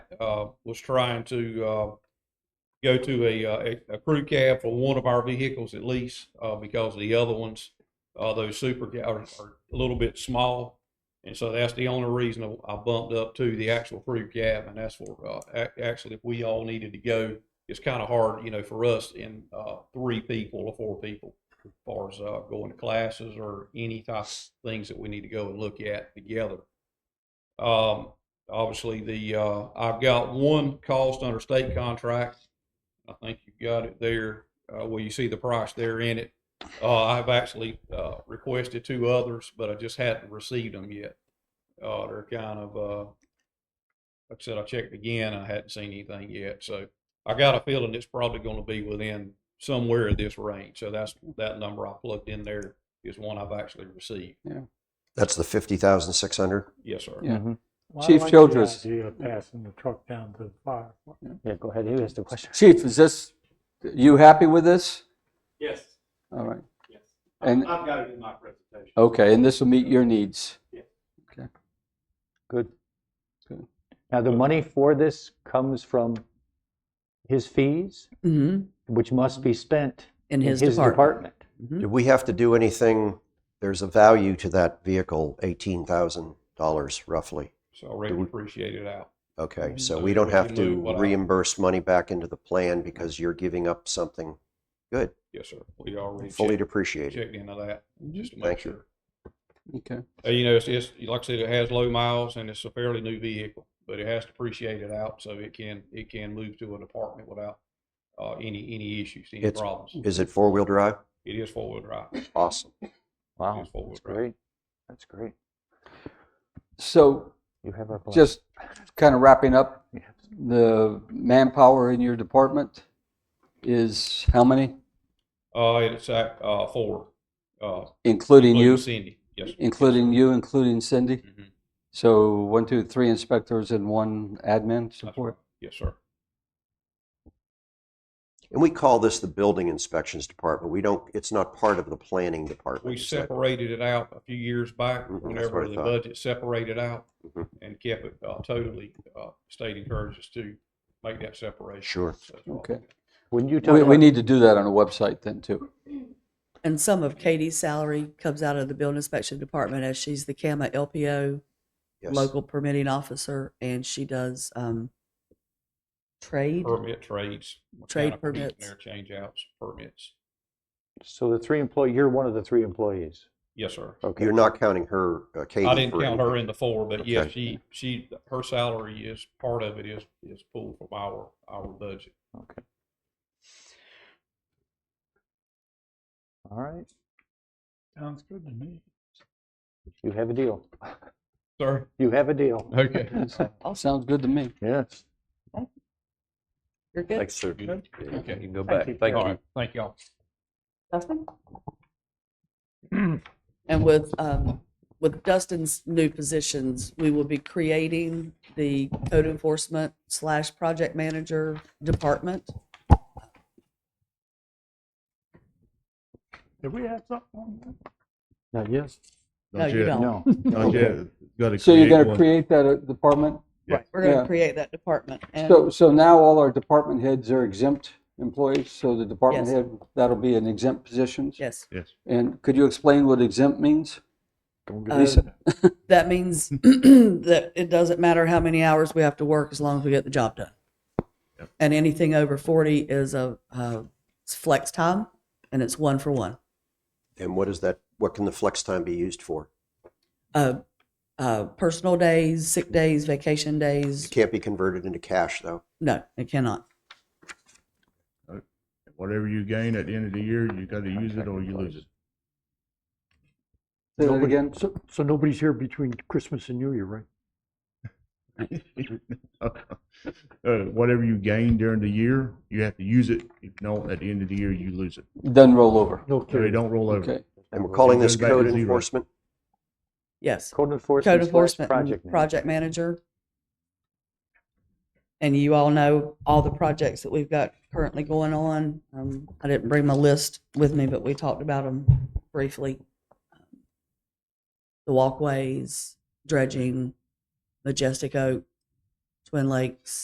uh, was trying to uh, go to a, uh, a, a crew cab for one of our vehicles at least, uh, because the other ones, uh, those super ca- are, are a little bit small. And so that's the only reason I bumped up to the actual crew cab, and that's what, uh, ac- actually, if we all needed to go, it's kind of hard, you know, for us in, uh, three people or four people, as far as, uh, going to classes or any type of things that we need to go and look at together. Um, obviously, the, uh, I've got one cost under state contract, I think you've got it there, uh, where you see the price there in it. Uh, I've actually, uh, requested two others, but I just hadn't received them yet. Uh, they're kind of, uh, like I said, I checked again, I hadn't seen anything yet, so I got a feeling it's probably gonna be within somewhere in this range, so that's, that number I plugged in there is one I've actually received. That's the fifty thousand six hundred. Yes, sir. Yeah. Mm-hmm. Well, I Chief like the Childress. Idea of passing the truck down to the fire. Yeah, go ahead. He asked the question. Chief, is this, you happy with this? Yes, All right, yes. And- I've I've got it in my presentation. okay, and this will meet your needs. Good. Good. Now, the money for this comes from his fees, Mhm. which must be spent In in his his department. department. Mhm. Did we have to do anything? There's a value to that vehicle, eighteen thousand dollars roughly. So I really appreciate it out. Okay, so So we don't we have move what to I- reimburse money back into the plan because you're giving up something good, Yes, sir. We already fully checked, depreciated. checked into that just to make Thank you. sure. Okay. Uh, you know, it's, it's like I said, it has low miles and it's a fairly new vehicle, but it has to depreciate it out so it can it can move to an apartment without uh, any any issues, any It's- problems. Is it four wheel drive? It is four wheel drive. It Awesome. Wow, is four wheel that's drive. great. That's great. So You have our blessing. just kind of wrapping up, the manpower in your department is how many? Uh, it's at uh, four, uh, including Including you, Cindy. Yes. sir. including you, including Cindy? Mhm. So one, two, three inspectors and one admin That's support? right. Yes, sir. And we call this the building inspections department. We don't, it's not part of the planning department. We is that- separated it out a few years back, Mhm, that's whenever what I the thought. budget separated out Mhm. and kept it uh, totally, uh, state encourages to make that separation. Sure. So uh, that's all. Okay. When you tell We, we me, need to do that on a website then too. And some of Katie's salary comes out of the building inspection department as she's the CAMA LPO Yes. local permitting officer and she does um trade. Permit trades. what Trade kind of permit permits. There, change outs, permits. so the three employee, you're one of the three employees. Yes, sir. Okay. You're not counting her, uh, Katie. I didn't for count her anything. in the four, but yeah, Okay. she, she, her salary is, part of it is, is pulled from our, our budget. Okay. All right, Sounds good to me. you have a deal. Sir? You have a deal. Okay. All sounds good to me. Yes. You're good. Thanks, sir. Good. Yeah, You Okay. can go Thank back. you. Thank All you. right. Thank y'all. Dustin? And with, um, with Dustin's new positions, we will be creating the code enforcement slash project manager department. Did we have something on that? Not yes? No, you don't. No. Not yet. Gotta So you're create going to one. create that uh, department? Right, we're going Yeah. to create that department. And So, so now all our department heads are exempt employees, so the department Yes. head, that'll be an exempt position? yes, And could you explain what exempt means? Uh, that means that it doesn't matter how many hours we have to work as long as we get the job done. And anything over 40 is a, uh, it's flex time and it's one for one. And what is that, what can the flex time be used for? uh, uh, personal days, sick days, vacation days. It can't be converted into cash though. No, it cannot. Whatever you gain at the end of the year, you gotta use it or you lose it. Say that Nobody- again? So, so nobody's here between Christmas and New Year, right? Uh, whatever you gain during the year, you have to use it. If not, at the end of the year, you lose it. Then roll over. No So they kidding. don't roll over. Okay. And we're calling this Goes back to code zero. enforcement? Yes. Code Code enforcement slash enforcement, project. and manager. project manager. And you all know all the projects that we've got currently going on. Um, I didn't bring my list with me, but we talked about them briefly. The walkways, dredging, Majestic Oak, Twin Lakes,